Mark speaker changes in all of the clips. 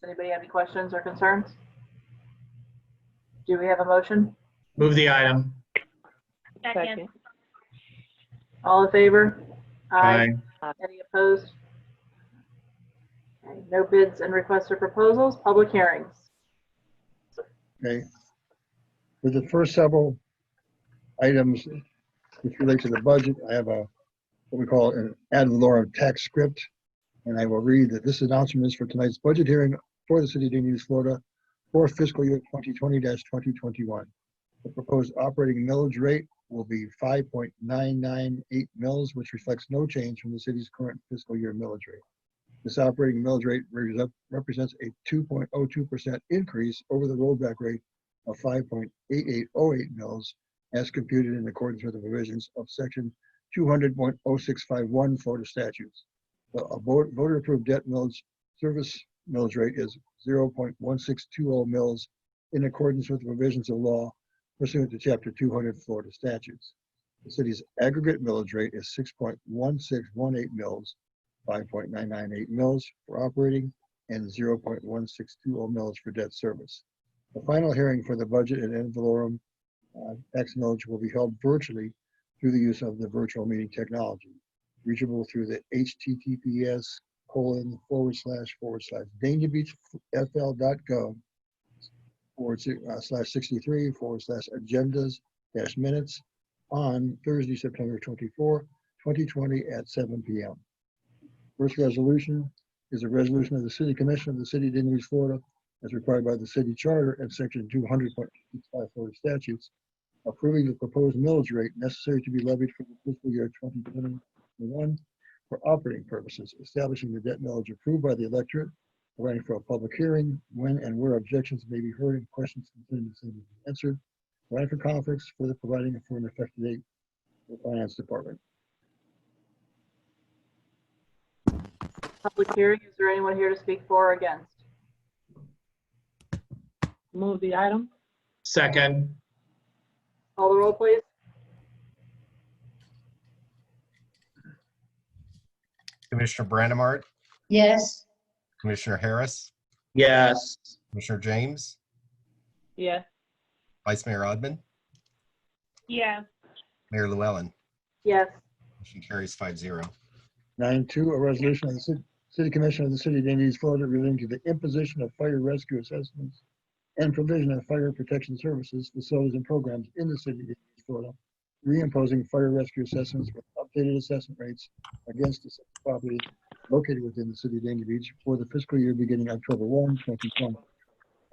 Speaker 1: Does anybody have any questions or concerns? Do we have a motion?
Speaker 2: Move the item.
Speaker 3: Second.
Speaker 1: All in favor?
Speaker 2: Aye.
Speaker 1: Any opposed? Okay, No bids and requests or proposals, public hearings.
Speaker 4: Okay. For the first several items which relate to the budget, I have a, what we call an ad valorem tax script. And I will read that this announcement is for tonight's budget hearing for the city of Dania, Florida for fiscal year 2020-2021. The proposed operating millage rate will be 5.998 mils, which reflects no change from the city's current fiscal year millage rate. This operating millage rate res- represents a 2.02% increase over the rollback rate of 5.8808 mils as computed in accordance with the provisions of section 200.0651 Florida statutes. The a vo- voter-approved debt millage service millage rate is 0.1620 mils in accordance with the provisions of law pursuant to chapter 200 Florida statutes. The city's aggregate millage rate is 6.1618 mils 5.998 mils for operating and 0.1620 mils for debt service. The final hearing for the budget and ad valorem uh, tax millage will be held virtually through the use of the virtual meeting technology, reachable through the HTTPS colon forward slash forward slash danabeachfl.gov forward si- uh, slash 63 forward slash agendas dash minutes on Thursday, September 24, 2020 at 7 p.m. First resolution is a resolution of the City Commission of the City of Dania Beach, Florida, as required by the city charter and section 200.65 Florida statutes, approving the proposed millage rate necessary to be levied for the fiscal year 2021 for operating purposes, establishing the debt millage approved by the electorate, providing for a public hearing, when and where objections may be heard and questions concerning the same be answered, providing for conflicts, further providing for an effective date for the Finance Department.
Speaker 1: Public hearing, is there anyone here to speak for or against?
Speaker 3: Move the item?
Speaker 2: Second.
Speaker 1: Call the roll, please.
Speaker 5: Commissioner Brandimart,
Speaker 6: yes,
Speaker 5: Commissioner Harris,
Speaker 2: Yes.
Speaker 5: Commissioner James,
Speaker 3: Yes.
Speaker 5: Vice Mayor Odman,
Speaker 3: Yeah.
Speaker 5: Mayor Llewellyn.
Speaker 1: Yes.
Speaker 5: Motion carries five zero.
Speaker 4: Nine two, a resolution of the Ci- City Commission of the City of Dania Beach, Florida relating to the imposition of fire rescue assessments and provision of fire protection services, facilities, and programs in the city of Dania Beach, Florida, reimposing fire rescue assessments with updated assessment rates against the city property located within the city of Dania Beach for the fiscal year beginning October 1, 2020.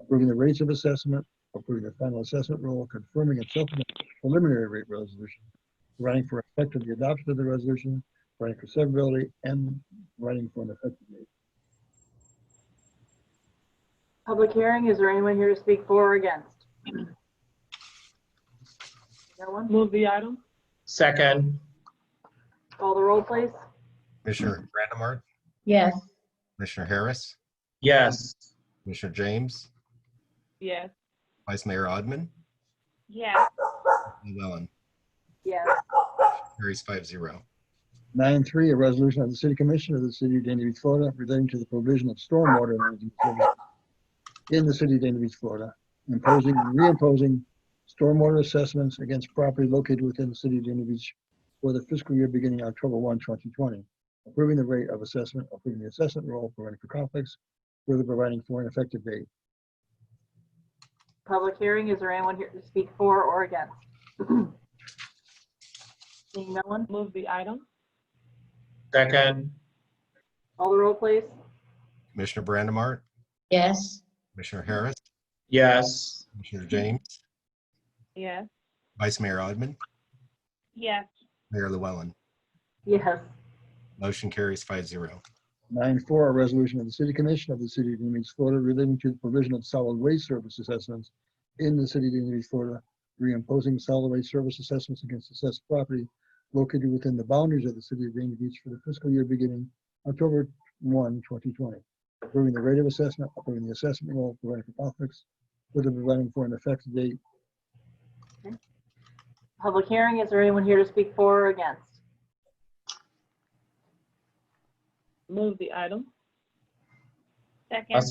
Speaker 4: Approving the rates of assessment, approving the final assessment rule, confirming and supplementing the preliminary rate resolution, providing for effect of the adoption of the resolution, running for severability and running for an effective date.
Speaker 1: Public hearing, is there anyone here to speak for or against? No one?
Speaker 3: Move the item?
Speaker 2: Second.
Speaker 1: Call the roll, please.
Speaker 5: Commissioner Brandimart,
Speaker 6: yes,
Speaker 5: Commissioner Harris,
Speaker 2: Yes.
Speaker 5: Commissioner James,
Speaker 3: Yes.
Speaker 5: Vice Mayor Odman,
Speaker 3: Yeah.
Speaker 5: Llewellyn.
Speaker 1: Yes.
Speaker 5: Carries five zero.
Speaker 4: Nine three, a resolution of the City Commission of the City of Dania Beach, Florida, relating to the provision of stormwater management services in the City of Dania Beach, Florida, imposing, reimposing stormwater assessments against property located within the City of Dania Beach for the fiscal year beginning October 1, 2020, approving the rate of assessment, approving the assessment role, providing for conflicts, further providing for an effective date.
Speaker 1: Public hearing, is there anyone here to speak for or against? Seeing no one,
Speaker 3: Move the item?
Speaker 2: Second.
Speaker 1: call the roll, please.
Speaker 5: Commissioner Brandimart,
Speaker 6: yes,
Speaker 5: Commissioner Harris,
Speaker 2: Yes.
Speaker 5: Commissioner James,
Speaker 3: Yes.
Speaker 5: Vice Mayor Odman,
Speaker 3: Yes.
Speaker 5: Mayor Llewellyn.
Speaker 1: Yes.
Speaker 5: Motion carries five zero.
Speaker 4: Nine four, a resolution of the City Commission of the City of Dania Beach, Florida relating to the provision of solid waste service assessments in the City of Dania Beach, Florida, reimposing solid waste service assessments against assessed property located within the boundaries of the City of Dania Beach for the fiscal year beginning October 1, 2020. Approving the rate of assessment, approving the assessment role, providing for conflicts, further providing for an effective date.
Speaker 1: Public hearing, is there anyone here to speak for or against?
Speaker 3: Move the item?
Speaker 2: I'll